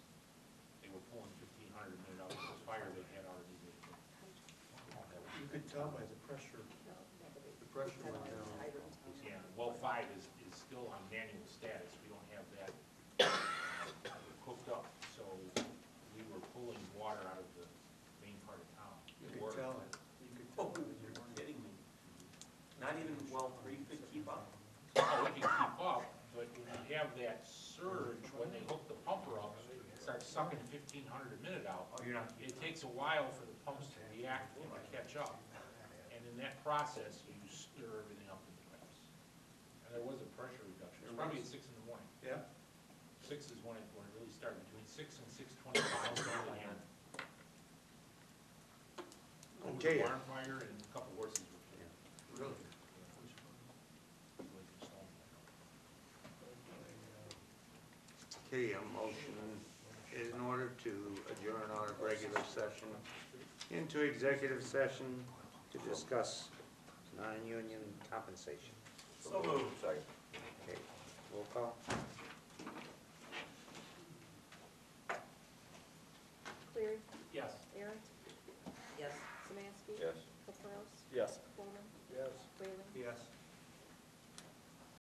could tell by the pressure, the pressure went down. Yeah, well, five is, is still on manual status, we don't have that uh, hooked up, so we were pulling water out of the main part of town. You could tell it, you could tell it when you weren't. Kidding me? Not even well three could keep up? Oh, we can keep up, but when you have that surge, when they hook the pumper up, it starts sucking fifteen hundred a minute out. Oh, you're not. It takes a while for the pumps to react and to catch up, and in that process, you stir everything up in the pipes. And there was a pressure reduction, it's probably at six in the morning. Yeah, Six is when it, when it really started, between six and six twenty-five, really had. Over the Okay. barn fire and a couple horses were killed. really. Yeah. It was a storm. Okay, a motion is in order to adjourn our regular session into executive session to discuss non-union compensation. So moved. Okay, roll call?